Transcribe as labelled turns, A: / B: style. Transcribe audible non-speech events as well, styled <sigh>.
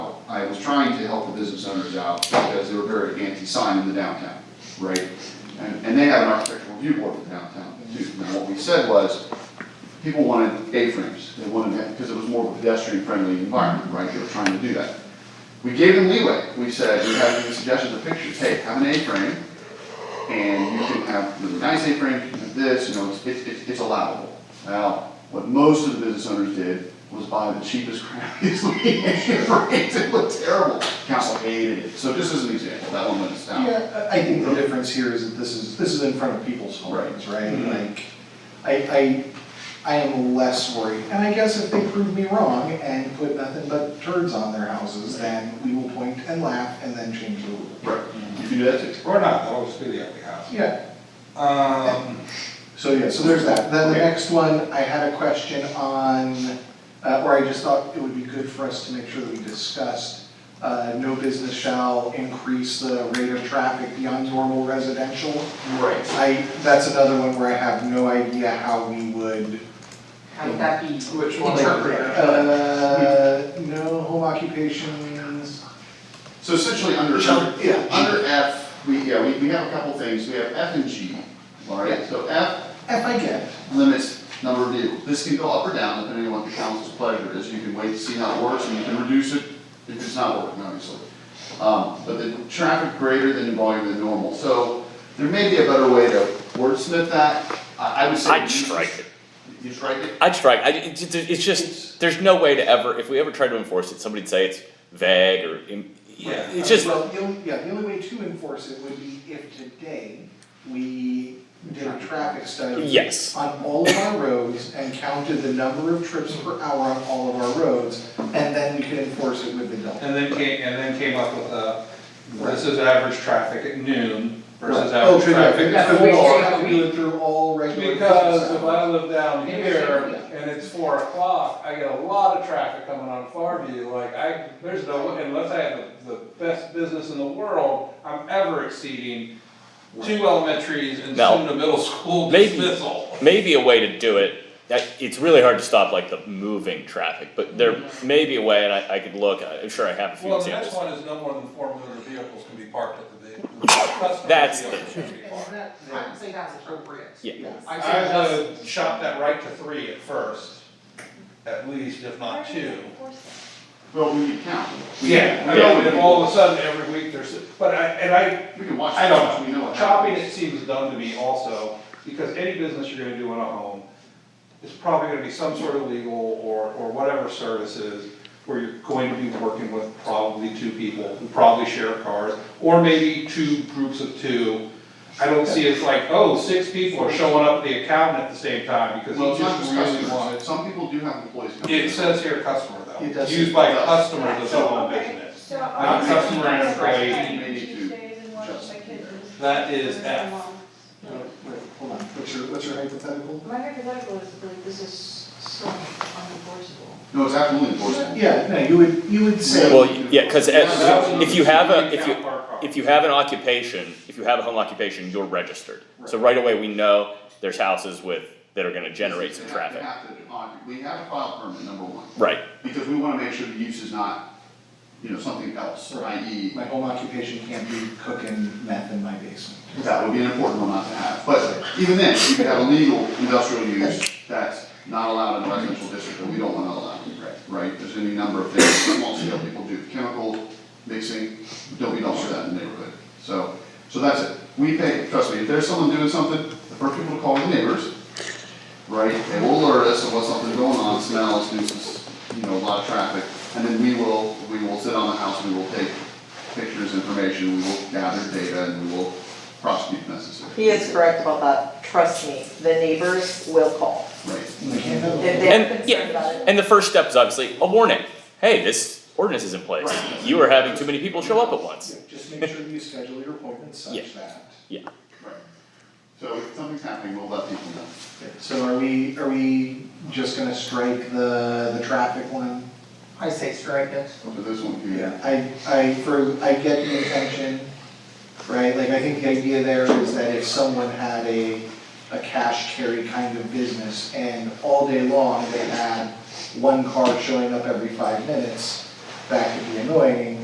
A: I was trying to help the business owners out because they were very anti-sign in the downtown, right? And, and they have an architectural review board for downtown too. Now, what we said was, people wanted A-frames, they wanted that, because it was more of a pedestrian-friendly environment, right? They were trying to do that. We gave them leeway, we said, we had the suggestions of pictures, hey, have an A-frame, and you can have really nice A-frames, you can have this, you know, it's, it's, it's allowable. Now, what most of the business owners did was buy the cheapest, <laughs> crappiest looking A-frames, it looked terrible. Council hated it, so just as an example, that one went us down.
B: Yeah, I I think the difference here is that this is, this is in front of people's homes, right? Mm-hmm. Like, I, I, I am less worried, and I guess if they prove me wrong and put nothing but turds on their houses, then we will point and laugh and then change the rule.
A: Right, you can do that too.
C: Or not, that'll just be the ugly house.
B: Yeah,
C: Um,
B: so yeah, so there's that. Then the
C: Okay.
B: next one, I had a question on, uh, or I just thought it would be good for us to make sure that we discussed, uh, no business shall increase the rate of traffic beyond normal residential.
A: Right.
B: I, that's another one where I have no idea how we would.
D: How would that be?
E: Which one?
B: Uh, no home occupations.
A: So essentially under,
B: Shall- yeah.
A: under F, we, yeah, we, we have a couple things, we have F and G, all right? So F
B: If I get,
A: limits number of vehicles. This can go up or down depending on what the council's pleasure is. You can wait to see how it works and you can reduce it if it's not working, obviously. Um, but the traffic greater than the volume than normal. So there may be a better way to wordsmith that. I, I would say.
F: I'd strike it.
A: You strike it?
F: I'd strike, I, it's, it's- it's just, there's no way to ever, if we ever tried to enforce it, somebody'd say it's vague or, im-
C: Yeah.
F: it's just,
B: well, the only, yeah, the only way to enforce it would be if today we did a traffic study.
F: Yes.
B: On all of our roads and counted the number of trips per hour on all of our roads, and then we could enforce it with the delta.
C: and then came, and then came up with a, this is average traffic at noon versus
B: Oh,
C: average
B: true,
C: traffic
B: yeah,
C: at
B: because we all
C: four.
B: have to do it through all regular.
C: Because
B: business
C: if
B: hours.
C: I live down here and it's four o'clock, I get a lot of traffic coming on Farview, like I, there's no, unless I have the, the best business in the world, I'm ever exceeding two elementaries and
F: Now,
C: soon a middle school
F: maybe-
C: dismissal.
F: maybe a way to do it. that- It's really hard to stop like the moving traffic, but there may be a way, and I, I could look, I'm sure I have a few
C: Well, the next
F: examples.
C: one is no more than four motor vehicles can be parked at the vehicle. That's.
F: That's
D: I would say that's appropriate.
F: Yeah.
B: Yes.
D: I say
C: I
D: that's,
C: would shop that right to three at first, at least, if not two.
A: Well, we can count.
C: I know, and if all of a sudden every week there's, but I, and I,
A: We can watch.
C: I don't
A: We know
C: know,
A: what
C: chopping it
A: happens.
C: seems dumb to me also, because any business you're gonna do in a home, it's probably gonna be some sort of legal or, or whatever services, where you're going to be working with probably two people who probably share cars, or maybe two groups of two. I don't see it's like, oh, six people are showing up at the accountant at the same time, because
A: Well, it's
C: he
A: not just
C: just really
A: customers.
C: wanted.
A: Some people do have employees coming.
C: It says here customer though,
B: It does.
C: used by customers of the home
G: Okay,
C: business.
G: so-
C: Not customer and employee.
A: Maybe to
G: Tuesdays and one of my
A: justify
G: kids
A: that.
C: That
G: is-
C: is F.
B: Wait, wait, hold on, what's your, what's your hypothetical?
G: My hypothetical is that this is so unenforceable.
A: No, it's absolutely enforceable.
B: Yeah, no, you would, you would say.
F: Well, yeah, cause if if you have a, if you, if you have an occupation, if you have a home occupation, you're registered. So right away, we know there's houses with, that are gonna generate some
A: They have to
F: traffic.
A: have to on- We have to file a permit, number one.
F: Right,
A: Because we wanna make sure the use is not, you know, something else, e
B: Right.
A: i.e.
B: My home occupation can't be cooking meth in my basement.
A: That would be an important one not to have, but even then, you could have a legal industrial use that's not allowed in a residential district, and we don't wanna allow it, right? There's any number of things, small scale people do, chemical mixing, don't, we don't want that in the neighborhood, so, so that's it. We pay, trust me, if there's someone doing something, the first people to call the neighbors, right? They will alert us of what's something going on, smells, nuisance, you know, a lot of traffic, and then we will, we will sit on the house, we will take pictures, information, we will gather data, and we will prosecute if necessary.
H: He is correct about that, trust me, the neighbors will call.
A: Right.
B: We can't have a-
H: If they're
F: And- yeah.
H: concerned about it,
F: and the first step is obviously a warning. Hey, this ordinance is in place. You are having too many people show up at once.
B: Yeah, Just make sure you schedule your appointments
F: Yeah.
B: such that.
A: Right. So if something's happening, we'll let people know.
B: Okay, So are we, are we just gonna strike the, the traffic one?
D: I say strike it.
A: So this one can.
B: I, I, for, I get the intention, right, like, I think the idea there is that if someone had a, a cash carry kind of business, and all day long, they had one car showing up every five minutes, that could be annoying,